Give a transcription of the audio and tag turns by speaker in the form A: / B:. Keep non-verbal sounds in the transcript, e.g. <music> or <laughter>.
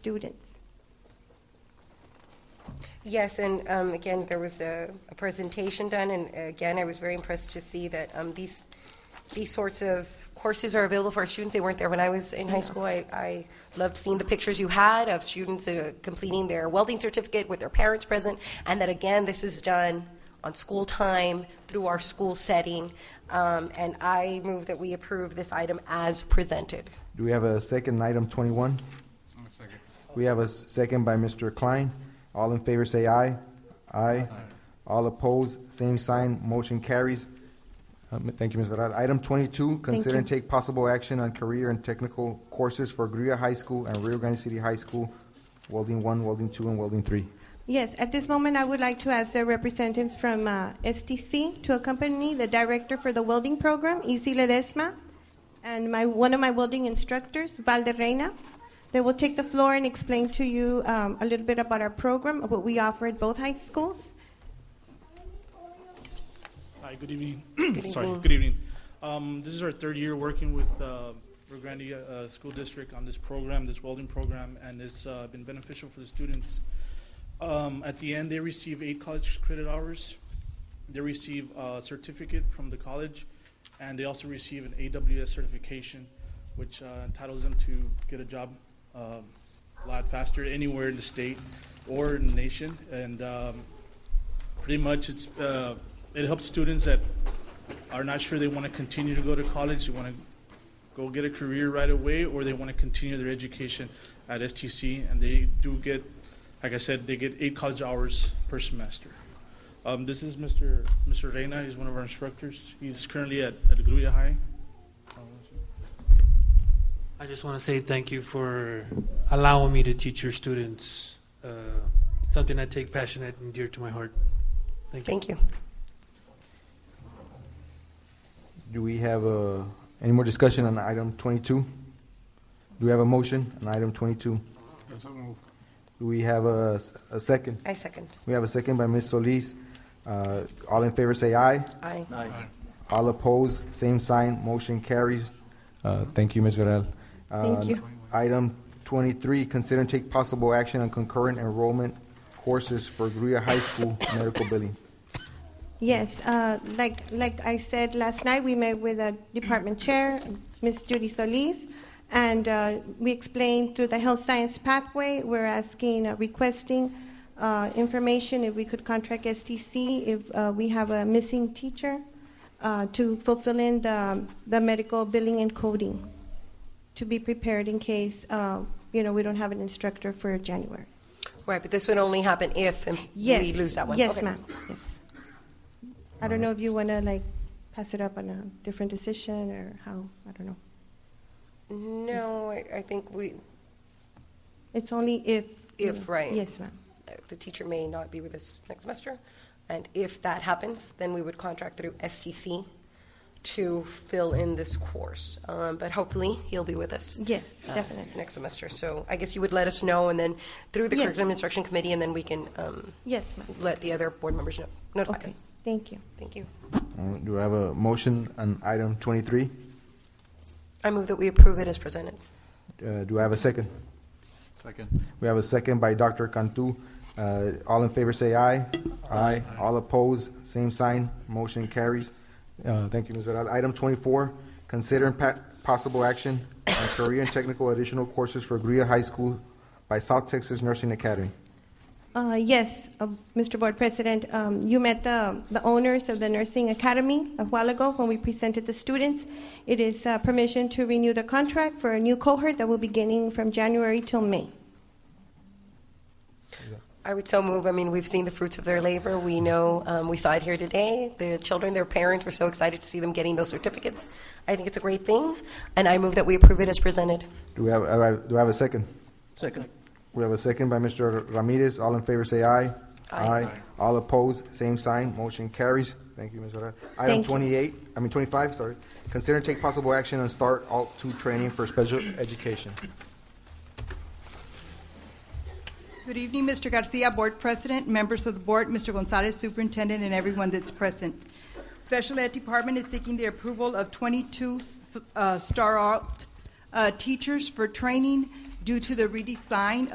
A: students.
B: Yes, and um, again, there was a, a presentation done, and again, I was very impressed to see that um, these, these sorts of courses are available for our students. They weren't there when I was in high school. I, I loved seeing the pictures you had of students uh, completing their welding certificate with their parents present, and that again, this is done on school time through our school setting. Um, And I move that we approve this item as presented.
C: Do we have a second, item twenty-one? We have a s- second by Mr. Klein. All in favor say aye. Aye. All opposed, same sign, motion carries. Um, Thank you, Ms. Varela. Item twenty-two, consider and take possible action on career and technical courses for Gruya High School and Rio Grande City High School, welding one, welding two, and welding three.
A: Yes, at this moment, I would like to ask the representatives from uh, STC to accompany me, the director for the welding program, Izzy Ledesma, and my, one of my welding instructors, Valderreina. They will take the floor and explain to you um, a little bit about our program, what we offer at both high schools.
D: Hi, good evening. <clears throat> Sorry, good evening. Um, This is our third year working with uh, Rio Grande uh, School District on this program, this welding program, and it's uh, been beneficial for the students. Um, At the end, they receive eight college credit hours. They receive a certificate from the college, and they also receive an AWS certification, which uh, entitles them to get a job um, a lot faster anywhere in the state or in the nation. And um, pretty much it's uh, it helps students that are not sure they want to continue to go to college they want to go get a career right away or they want to continue their education at stc and they do get like i said they get eight college hours per semester um, this is mr mr reyna he's one of our instructors he's currently at, at gruya high
E: I just want to say thank you for allowing me to teach your students uh, something I take passionate and dear to my heart. Thank you.
B: Thank you.
C: Do we have uh, any more discussion on item twenty-two? Do we have a motion on item twenty-two? Do we have a s a a second?
B: I second.
C: We have a second by Ms. Solis. Uh, All in favor say aye.
B: Aye.
C: All opposed, same sign, motion carries. Uh, Thank you, Ms. Varela.
A: Thank you.
C: Item twenty-three, consider and take possible action on concurrent enrollment courses for Gruya High School medical billing.
A: Yes, uh, like, like I said last night, we met with a department chair, Ms. Judy Solis, and uh, we explained through the health science pathway, we're asking, uh, requesting uh, information if we could contract STC if uh, we have a missing teacher uh, to fulfill in the, the medical billing and coding, to be prepared in case, uh, you know, we don't have an instructor for January.
B: Right, but this would only happen if um,
A: Yes.
B: we lose that one.
A: Yes,
B: Okay.
A: ma'am, yes. I don't know if you want to like pass it up on a different decision or how, I don't know.
B: No, I, I think we,
A: It's only if. you
B: If,
A: know.
B: right.
A: Yes, ma'am.
B: the teacher may not be with us next semester, and if that happens, then we would contract through STC to fill in this course. Um, but hopefully, he'll be with us.
A: Yes,
B: uh,
A: definitely.
B: Next semester, so I guess you would let us know, and then through the
A: Yes.
B: curriculum instruction committee, and then we can um,
A: Yes, ma'am.
B: let the other board members know, notify
A: Okay,
B: them.
A: thank you.
B: Thank you.
C: Uh, Do I have a motion on item twenty-three?
B: I move that we approve it as presented.
C: Uh, Do I have a second?
F: Second.
C: We have a second by Dr. Cantu. Uh, All in favor say aye. Aye. All opposed, same sign, motion carries. Uh, Thank you, Ms. Varela. Item twenty-four, consider and pa- possible action on career and technical additional courses for Gruya High School by South Texas Nursing Academy.
A: Uh, Yes, uh, Mr. Board President, um, you met the the owners of the Nursing Academy a while ago when we presented the students. It is uh, permission to renew the contract for a new cohort that will be beginning from January till May.
B: I would so move. I mean, we've seen the fruits of their labor. We know, um, we saw it here today. The children, their parents were so excited to see them getting those certificates. I think it's a great thing, and I move that we approve it as presented.
C: Do we have, uh, do I have a second?
F: Second.
C: We have a second by Mr. Ramirez. All in favor say aye.
B: Aye.
C: All opposed, same sign, motion carries. Thank you, Ms. Varela.
A: Thank
C: Item
A: you.
C: twenty-eight, I mean twenty-five, sorry. Consider and take possible action on start alt two training for special education.
G: Good evening, Mr. Garcia, Board President, members of the board, Mr. Gonzalez, Superintendent, and everyone that's present. Special Ed Department is seeking the approval of 22 uh, Star Alt uh, teachers for training due to the redesign